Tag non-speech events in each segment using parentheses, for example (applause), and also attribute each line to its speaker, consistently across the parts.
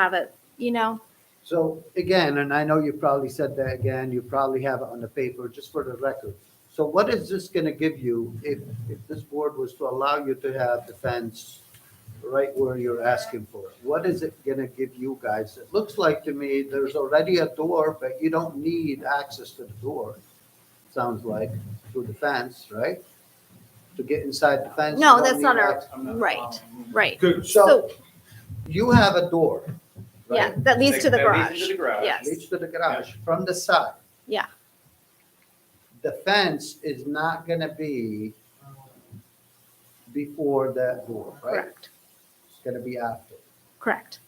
Speaker 1: have it, you know?
Speaker 2: So again, and I know you probably said that again, you probably have it on the paper, just for the record. So what is this gonna give you if, if this board was to allow you to have the fence right where you're asking for it? What is it gonna give you guys? It looks like to me there's already a door, but you don't need access to the door, sounds like, through the fence, right? To get inside the fence. you
Speaker 1: No,
Speaker 2: don't
Speaker 1: that's
Speaker 2: need
Speaker 1: not our-
Speaker 2: access.
Speaker 3: I'm not
Speaker 1: Right.
Speaker 3: following.
Speaker 1: Right.
Speaker 3: Good.
Speaker 2: So you have a door. right?
Speaker 1: Yeah, that leads to the
Speaker 3: That leads
Speaker 1: garage.
Speaker 3: to the garage.
Speaker 1: Yes.
Speaker 2: leads to the garage from the side.
Speaker 1: Yeah.
Speaker 2: The fence is not gonna be before that door, right?
Speaker 1: Correct,
Speaker 2: It's gonna be after.
Speaker 1: correct.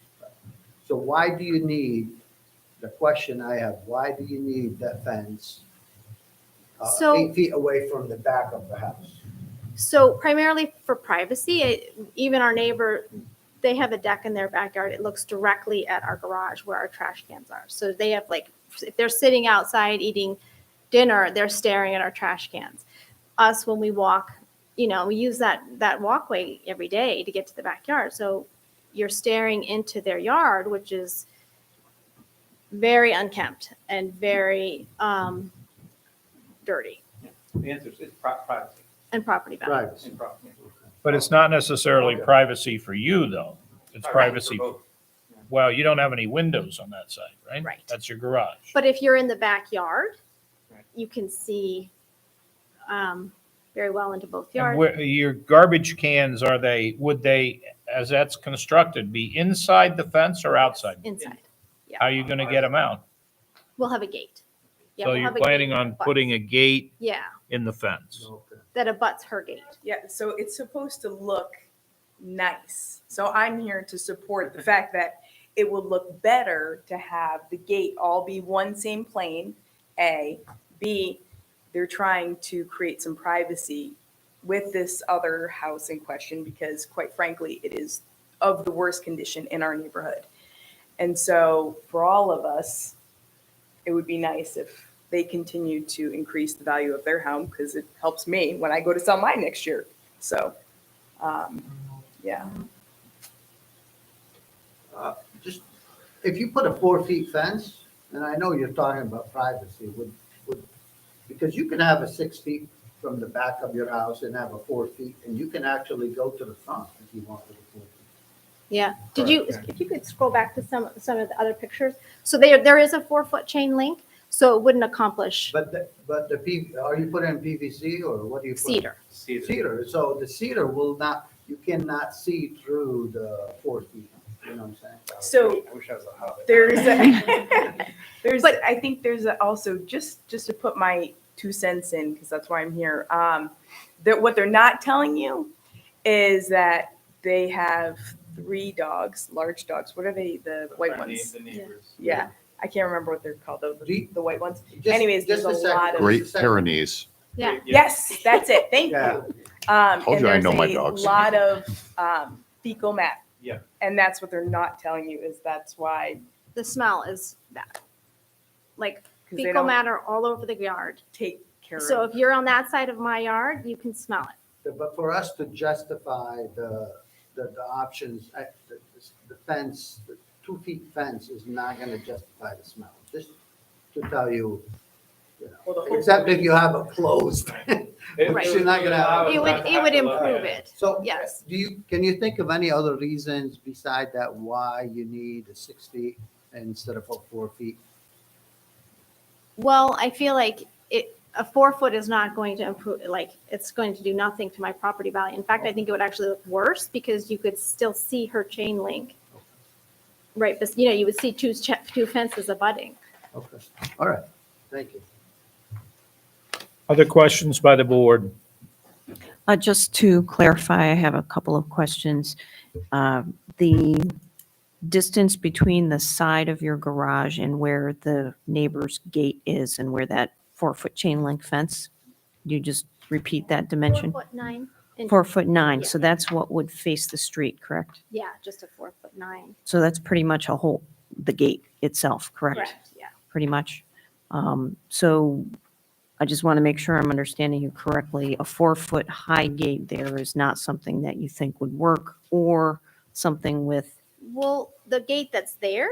Speaker 2: So why do you need, the question I have, why do you need that fence? uh,
Speaker 1: So-
Speaker 2: Eight feet away from the back of the house.
Speaker 1: So primarily for privacy, it- even our neighbor, they have a deck in their backyard. It looks directly at our garage where our trash cans are. So they have like, if they're sitting outside eating dinner, they're staring at our trash cans. Us, when we walk, you know, we use that, that walkway every day to get to the backyard. So you're staring into their yard, which is very unkempt and very um, dirty
Speaker 3: The answer is it's pri- privacy,
Speaker 1: and property value.
Speaker 2: Right.
Speaker 3: in property.
Speaker 4: But it's not necessarily
Speaker 2: Okay.
Speaker 4: privacy for you, though. It's privacy,
Speaker 3: for both.
Speaker 4: well, you don't have any windows on that side, right?
Speaker 1: Right.
Speaker 4: That's your garage.
Speaker 1: But if you're in the backyard,
Speaker 3: Right.
Speaker 1: you can see um, very well into both
Speaker 4: And
Speaker 1: yards.
Speaker 4: where- Your garbage cans, are they, would they, as that's constructed, be inside the fence or outside?
Speaker 1: Inside.
Speaker 4: How are you going to get them out?
Speaker 1: We'll have a gate. Yeah,
Speaker 4: So
Speaker 1: we'll
Speaker 4: you're
Speaker 1: have a
Speaker 4: planning
Speaker 1: gate
Speaker 4: on
Speaker 1: that abuts-
Speaker 4: putting a gate
Speaker 1: Yeah,
Speaker 4: in the fence?
Speaker 2: Okay.
Speaker 1: that abuts her gate.
Speaker 5: Yeah, so it's supposed to look nice. So I'm here to support the fact that it would look better to have the gate all be one same plane, A. B, they're trying to create some privacy with this other house in question because quite frankly, it is of the worst condition in our neighborhood. And so for all of us, it would be nice if they continue to increase the value of their home because it helps me when I go to sell mine next year. So, um, yeah.
Speaker 2: just, if you put a four feet fence, and I know you're talking about privacy, would, would, because you can have a six feet from the back of your house and have a four feet, and you can actually go to the front if you want to.
Speaker 1: Yeah. Did you, if you could scroll back to some, some of the other pictures? So there, there is a four foot chain link, so it wouldn't accomplish
Speaker 2: But the, but the P, are you putting in PVC or what do you? put?
Speaker 1: cedar.
Speaker 3: See the-
Speaker 2: Cedar, so the cedar will not, you cannot see through the four feet, you know what I'm saying?
Speaker 5: So
Speaker 3: I wish I was a hobbit.
Speaker 5: there's, a, (laughs) there's,
Speaker 1: But-
Speaker 5: I think there's a- also just, just to put my two cents in, because that's why I'm here. Um, that what they're not telling you is that they have three dogs, large dogs. What are they? The white
Speaker 3: The
Speaker 5: ones.
Speaker 3: The neighbors.
Speaker 5: Yeah. I can't remember what they're called though. The,
Speaker 2: Do you-
Speaker 5: the white ones.
Speaker 2: Just-
Speaker 5: Anyways,
Speaker 2: just
Speaker 5: there's a
Speaker 2: second,
Speaker 5: lot of-
Speaker 2: just a
Speaker 6: Great
Speaker 2: second.
Speaker 6: Pyrenees.
Speaker 1: Yeah.
Speaker 5: Yes, that's it. Thank
Speaker 2: Yeah.
Speaker 5: you. Um,
Speaker 6: Told
Speaker 5: and
Speaker 6: you I
Speaker 5: there's
Speaker 6: know my
Speaker 5: a
Speaker 6: dogs.
Speaker 5: Lot of um, fecal matter.
Speaker 3: Yeah.
Speaker 5: And that's what they're not telling you is that's why
Speaker 1: The smell is bad. Like
Speaker 5: because they
Speaker 1: fecal
Speaker 5: don't
Speaker 1: matter all over the yard.
Speaker 5: take care
Speaker 1: So
Speaker 5: of.
Speaker 1: if you're on that side of my yard, you can smell it.
Speaker 2: But for us to justify the, the, the options, I- the the fence, the two feet fence is not gonna justify the smell, just to tell you, you
Speaker 5: Well, the
Speaker 2: know,
Speaker 5: whole-
Speaker 2: except if you have it closed.
Speaker 3: It-
Speaker 1: Right.
Speaker 3: it
Speaker 2: You're not gonna
Speaker 4: Oh,
Speaker 2: have
Speaker 3: was
Speaker 1: It would,
Speaker 3: not
Speaker 1: it would
Speaker 3: to look
Speaker 1: improve
Speaker 3: at.
Speaker 1: it.
Speaker 2: So.
Speaker 1: Yes.
Speaker 2: Do you, can you think of any other reasons beside that why you need a six feet instead of a four feet?
Speaker 1: Well, I feel like it, a four foot is not going to improve, like, it's going to do nothing to my property value. In fact, I think it would actually look worse because you could still see her chain link. Right, but, you know, you would see two, cha- two fences abutting.
Speaker 2: Okay, all right, thank you.
Speaker 4: Other questions by the board?
Speaker 7: Uh, Just to clarify, I have a couple of questions. Uh, The distance between the side of your garage and where the neighbor's gate is and where that four-foot chain link fence, you just repeat that dimension?
Speaker 1: Four foot nine. and-
Speaker 7: Four foot nine,
Speaker 1: Yeah.
Speaker 7: so that's what would face the street, correct?
Speaker 1: Yeah, just a four foot nine.
Speaker 7: So that's pretty much a whole, the gate itself, correct?
Speaker 1: Correct, yeah.
Speaker 7: Pretty much. Um, So I just want to make sure I'm understanding you correctly. A four-foot high gate there is not something that you think would work or something with
Speaker 1: Well, the gate that's there